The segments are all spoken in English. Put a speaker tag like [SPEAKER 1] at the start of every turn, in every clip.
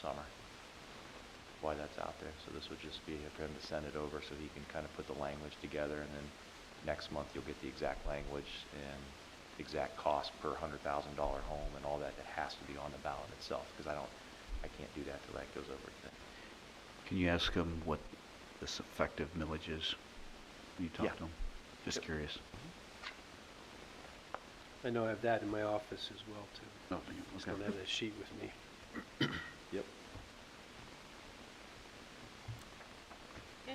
[SPEAKER 1] summer, why that's out there. So this would just be for him to send it over so he can kind of put the language together, and then next month you'll get the exact language and exact cost per hundred thousand dollar home and all that that has to be on the ballot itself, because I don't, I can't do that till that goes over to them.
[SPEAKER 2] Can you ask them what this effective millage is? Can you
[SPEAKER 1] Yeah.
[SPEAKER 2] talk to them? Just
[SPEAKER 1] Yep.
[SPEAKER 2] curious.
[SPEAKER 3] I know I have that in my office as well, too.
[SPEAKER 2] Oh, thank you.
[SPEAKER 3] Just
[SPEAKER 2] Okay.
[SPEAKER 3] don't have that sheet with me.
[SPEAKER 1] Yep.
[SPEAKER 4] Okay.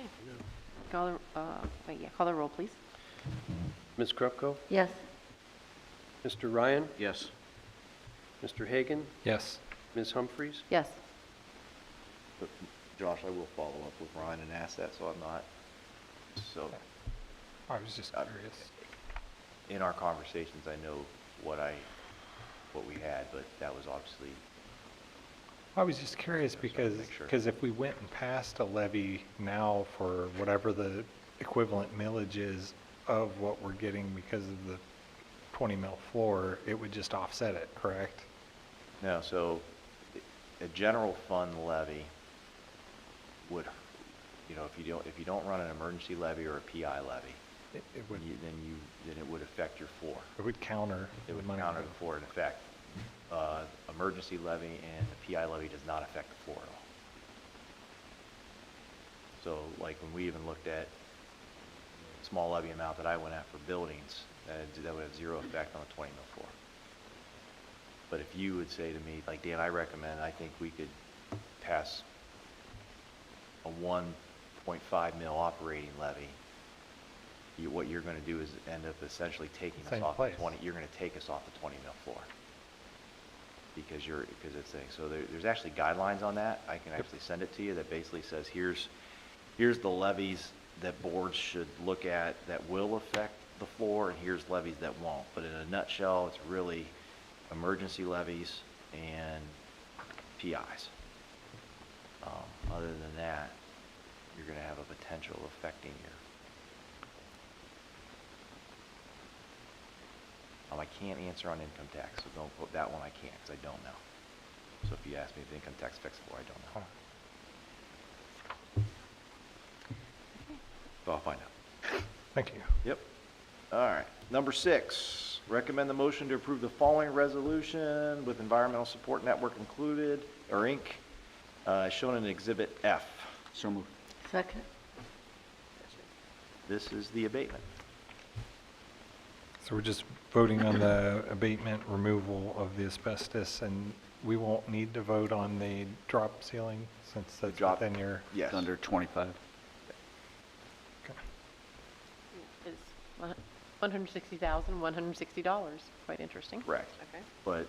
[SPEAKER 3] I know.
[SPEAKER 4] Call the, uh, wait, yeah, call the roll, please.
[SPEAKER 3] Ms. Krupko?
[SPEAKER 4] Yes.
[SPEAKER 3] Mr. Ryan?
[SPEAKER 2] Yes.
[SPEAKER 3] Mr. Hagan?
[SPEAKER 5] Yes.
[SPEAKER 3] Ms. Humphries?
[SPEAKER 4] Yes.
[SPEAKER 1] But Josh, I will follow up with Ryan and ask that, so I'm not, so
[SPEAKER 5] I was just
[SPEAKER 1] Uh,
[SPEAKER 5] curious.
[SPEAKER 1] in our conversations, I know what I, what we had, but that was obviously,
[SPEAKER 5] I was just curious
[SPEAKER 1] Yeah, so I
[SPEAKER 5] because,
[SPEAKER 1] make sure.
[SPEAKER 5] because if we went and passed a levy now for whatever the equivalent millage is of what we're getting because of the 20 mil floor, it would just offset it, correct?
[SPEAKER 1] no, so i- a general fund levy would, you know, if you don't, if you don't run an emergency levy or a PI levy,
[SPEAKER 5] It it would,
[SPEAKER 1] then you, then you- then it would affect your floor.
[SPEAKER 5] it would counter.
[SPEAKER 1] It would
[SPEAKER 5] money Mm-hmm.
[SPEAKER 1] counter
[SPEAKER 5] that-
[SPEAKER 1] the floor in effect. Uh, emergency levy and the PI levy does not affect the floor at all. So like when we even looked at small levy amount that I went at for buildings, that, that would have zero effect on the twenty mil floor. But if you would say to me, like, Dan, I recommend, I think we could pass a one point five mil operating levy, you, what you're gonna do is end up essentially taking us
[SPEAKER 5] Same
[SPEAKER 1] off the
[SPEAKER 5] place.
[SPEAKER 1] twenty, you're gonna take us off the twenty mil floor. Because you're, because it's saying, so there, there's actually guidelines on that, I can actually send it to you, that basically says, here's, here's the levies that boards should look at that will affect the floor, and here's levies that won't. But in a nutshell, it's really emergency levies and PIs. Um, Other than that, you're gonna have a potential affecting your. Um, I can't answer on income tax, so don't, quote- that one I can't, because I don't know. So if you ask me if income tax affects the floor, I don't
[SPEAKER 5] Huh.
[SPEAKER 1] know. So I'll find out.
[SPEAKER 5] Thank you.
[SPEAKER 1] Yep. All right. Number six, recommend the motion to approve the following resolution with environmental support network included, or Inc., uh, shown in Exhibit F.
[SPEAKER 2] So moved.
[SPEAKER 4] Second.
[SPEAKER 1] This is the abatement.
[SPEAKER 5] So we're just voting on the abatement removal of the asbestos and we won't need to vote on the drop ceiling since that's
[SPEAKER 1] drop-
[SPEAKER 5] within your.
[SPEAKER 1] Yes.
[SPEAKER 2] It's under 25.
[SPEAKER 5] Okay.
[SPEAKER 4] It's one hundred sixty thousand, one hundred sixty dollars. Quite interesting.
[SPEAKER 1] Correct.
[SPEAKER 4] Okay.
[SPEAKER 1] But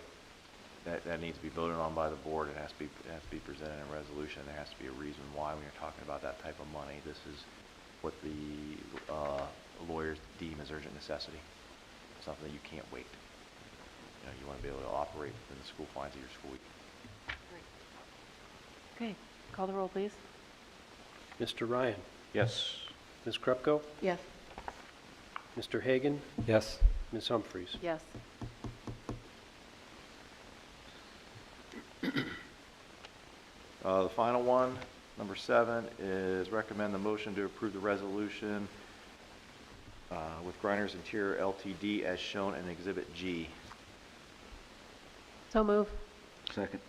[SPEAKER 1] that, that needs to be voted on by the board. It has to be, it has to be presented in a resolution. There has to be a reason why when you're talking about that type of money. This is what the uh, lawyers deem as urgent necessity. Something that you can't wait. You know, you want to be able to operate within the school fines of your school week.
[SPEAKER 4] Okay, call the roll, please.
[SPEAKER 3] Mr. Ryan?
[SPEAKER 2] Yes.
[SPEAKER 3] Ms. Krupko?
[SPEAKER 4] Yes.
[SPEAKER 3] Mr. Hagan?
[SPEAKER 5] Yes.
[SPEAKER 3] Ms. Humphries?
[SPEAKER 4] Yes.
[SPEAKER 1] Uh, The final one, number seven, is recommend the motion to approve the resolution uh, with Grinders Interior LTD as shown in Exhibit G.
[SPEAKER 4] So move.
[SPEAKER 2] Second.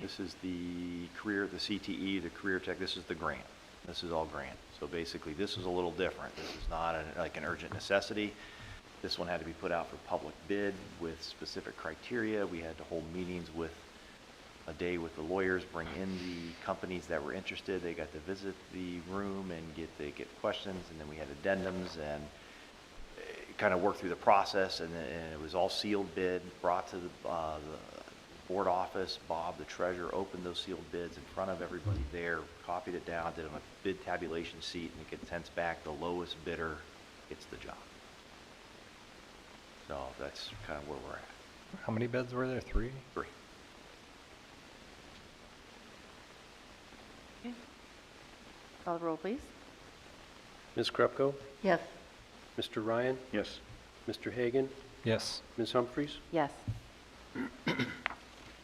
[SPEAKER 1] This is the career, the CTE, the career tech, this is the grant. This is all grant. So basically, this is a little different. This is not an- like an urgent necessity. This one had to be put out for public bid with specific criteria. We had to hold meetings with, a day with the lawyers, bring in the companies that were interested. They got to visit the room and get, they get questions, and then we had addendums and kind of worked through the process, and then- and it was all sealed bid, brought to the, uh, the board office. Bob, the treasurer, opened those sealed bids in front of everybody there, copied it down, did them a bid tabulation sheet, and it gets sent back. The lowest bidder gets the job. So that's kind of where we're at.
[SPEAKER 5] How many beds were there? Three?
[SPEAKER 1] Three.
[SPEAKER 4] Okay. Call the roll, please.
[SPEAKER 3] Ms. Krupko?
[SPEAKER 4] Yes.
[SPEAKER 3] Mr. Ryan?
[SPEAKER 2] Yes.
[SPEAKER 3] Mr. Hagan?
[SPEAKER 5] Yes.
[SPEAKER 3] Ms. Humphries?
[SPEAKER 4] Yes.